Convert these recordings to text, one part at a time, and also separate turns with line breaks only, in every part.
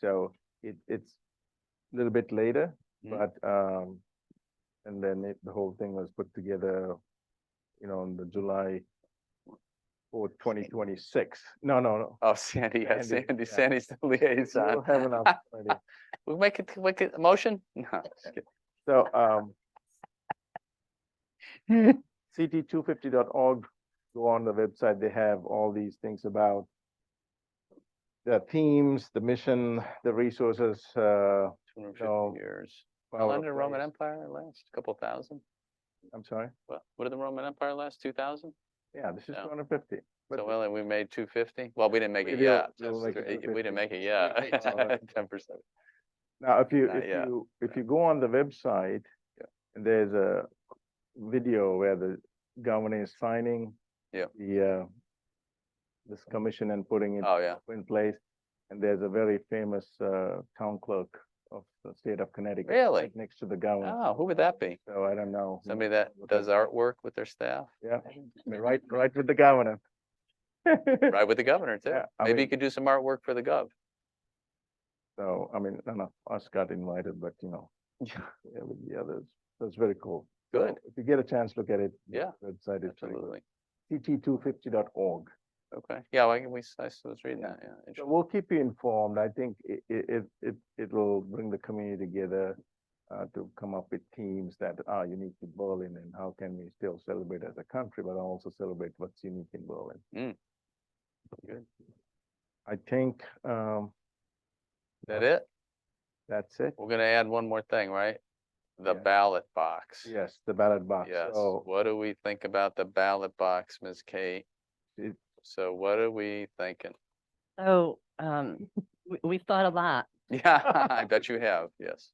so it, it's a little bit later,
Mhm.
but, um, and then it, the whole thing was put together, you know, on the July or twenty twenty-six. No, no, no.
Oh, Sandy, yeah,
Sandy,
Sandy,
yeah.
Sandy's the
We'll
liaison.
have an opportunity.
We make it, make it, a motion? No. just kidding.
So, um, CT two fifty go on the website, they have all these things about the themes, the mission, the resources, uh,
250
No.
Years. How
power
long did the
of
Roman
place.
Empire last? A Couple thousand?
I'm sorry,
What, what did the Roman Empire last? Two thousand?
yeah, this is
No.
two hundred fifty.
So well, and we made two fifty? Well, we didn't make it
Maybe I'll-
yet.
we'll
That's
make it
thr-
250.
We didn't make it
Okay, well,
yet. Ten percent.
Now, if you,
Not
if
yet.
you, if you go on the website,
Yeah.
there's a video where the governor is signing
Yeah.
the, uh, this commission and putting it
Oh, yeah.
in place. And there's a very famous, uh, town clerk of the state of Connecticut.
Really?
right Next to the governor,
Oh, who would that be?
so I don't know.
Somebody that
what
does artwork with their staff,
Yeah, I mean, right, right with the governor.
right with the governor too.
Yeah, I
Maybe you
mean-
could do some artwork for the gov.
So, I mean, none of us got invited, but you know,
Yeah.
yeah, with the others, that's very cool. So
Good,
If you get a chance, look at it. the
Yeah,
Website is pretty good.
absolutely.
CT250.org.
Okay, yeah, I, we, s- I s- was reading that, yeah.
So
interesting.
we'll keep you informed. I think it, it, it, it'll bring the community together uh, to come up with themes that are unique to Berlin and how can we still celebrate as a country, but also celebrate what's unique in Berlin.
Mm. Good.
I think, um,
That it?
that's it.
We're gonna add one more thing, right? The
Yeah.
ballot box.
Yes, the ballot box.
Yes,
So
what do we think about the ballot box, Ms. Kate?
It-
So what are we thinking?
So, um, we, we've thought a lot.
Yeah, I bet you have, yes.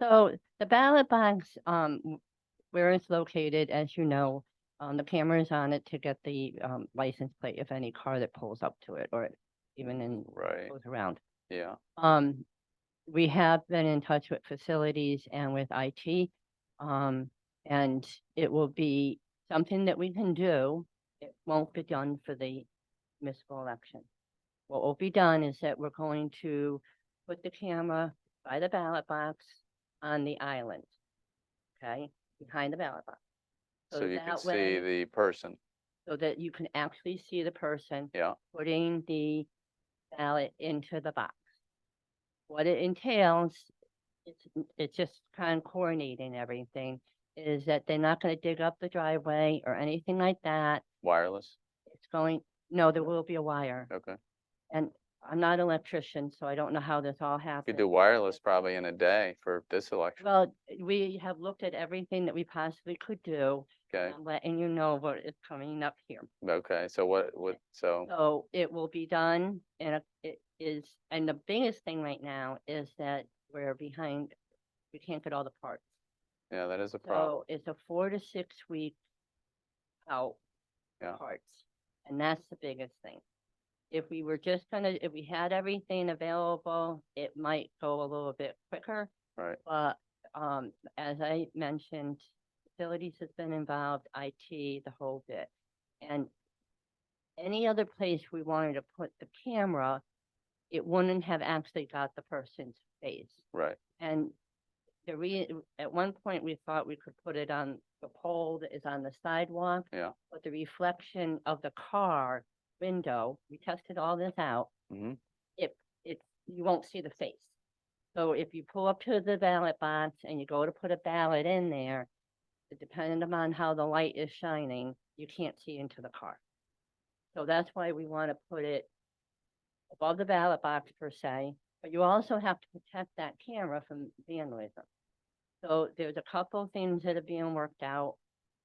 So the ballot box, um, w- where it's located, as you know, um, the camera's on it to get the, um, license plate if any car that pulls up to it or even in,
Right,
goes around.
yeah,
Um, we have been in touch with facilities and with IT. Um, and it will be something that we can do. It won't be done for the municipal election. What will be done is that we're going to put the camera by the ballot box on the island. Okay, behind the ballot box. So
so you can
that
see
way-
the person,
so that you can actually see the person.
Yeah.
Putting the ballot into the box. What it entails, it's, it's just kind of coordinating everything, is that they're not gonna dig up the driveway or anything like that.
wireless,
It's going, no, there will be a wire.
okay.
And I'm not an electrician, so I don't know how this all
You
happens.
could do wireless probably in a day for this election,
Well, we have looked at everything that we possibly could do.
okay?
I'm letting you know what is coming up here.
Okay, so what, what, so,
So it will be done and it is, and the biggest thing right now is that we're behind, we can't get all the parts.
yeah, that is a problem,
So it's a four to six week out for
Yeah.
parts. And that's the biggest thing. If we were just gonna, if we had everything available, it might go a little bit quicker.
right?
But um, as I mentioned, facilities has been involved, IT, the whole bit. And any other place we wanted to put the camera, it wouldn't have actually got the person's face.
Right,
And the re, at one point, we thought we could put it on the pole that is on the sidewalk.
Yeah.
But the reflection of the car window, we tested all this out.
Mhm.
It, it, you won't see the face. So if you pull up to the ballot box and you go to put a ballot in there, depending upon how the light is shining, you can't see into the car. So that's why we want to put it above the ballot box per se, but you also have to protect that camera from vandalism. So there's a couple things that are being worked out,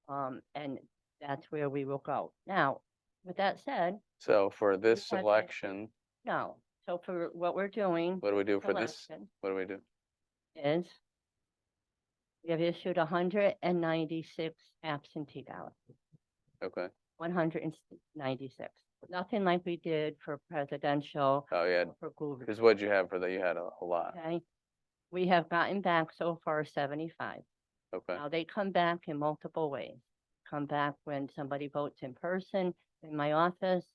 um, and that's where we will go. Now, with that said,
so for this
had that-
election,
no, so for what we're doing.
what do we do for this,
election
what do we do?
Is we have issued hundred and ninety-six absentee ballots,
Okay,
one hundred and ninety-six. Nothing like we did for presidential,
oh, yeah,
for gov-
Because what'd you have for that? You had a, a lot.
Okay, we have gotten back so far seventy-five.
Okay,
Now, they come back in multiple ways. Come back when somebody votes in person in my office,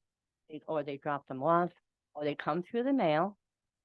they- or they drop them off, or they come through the mail.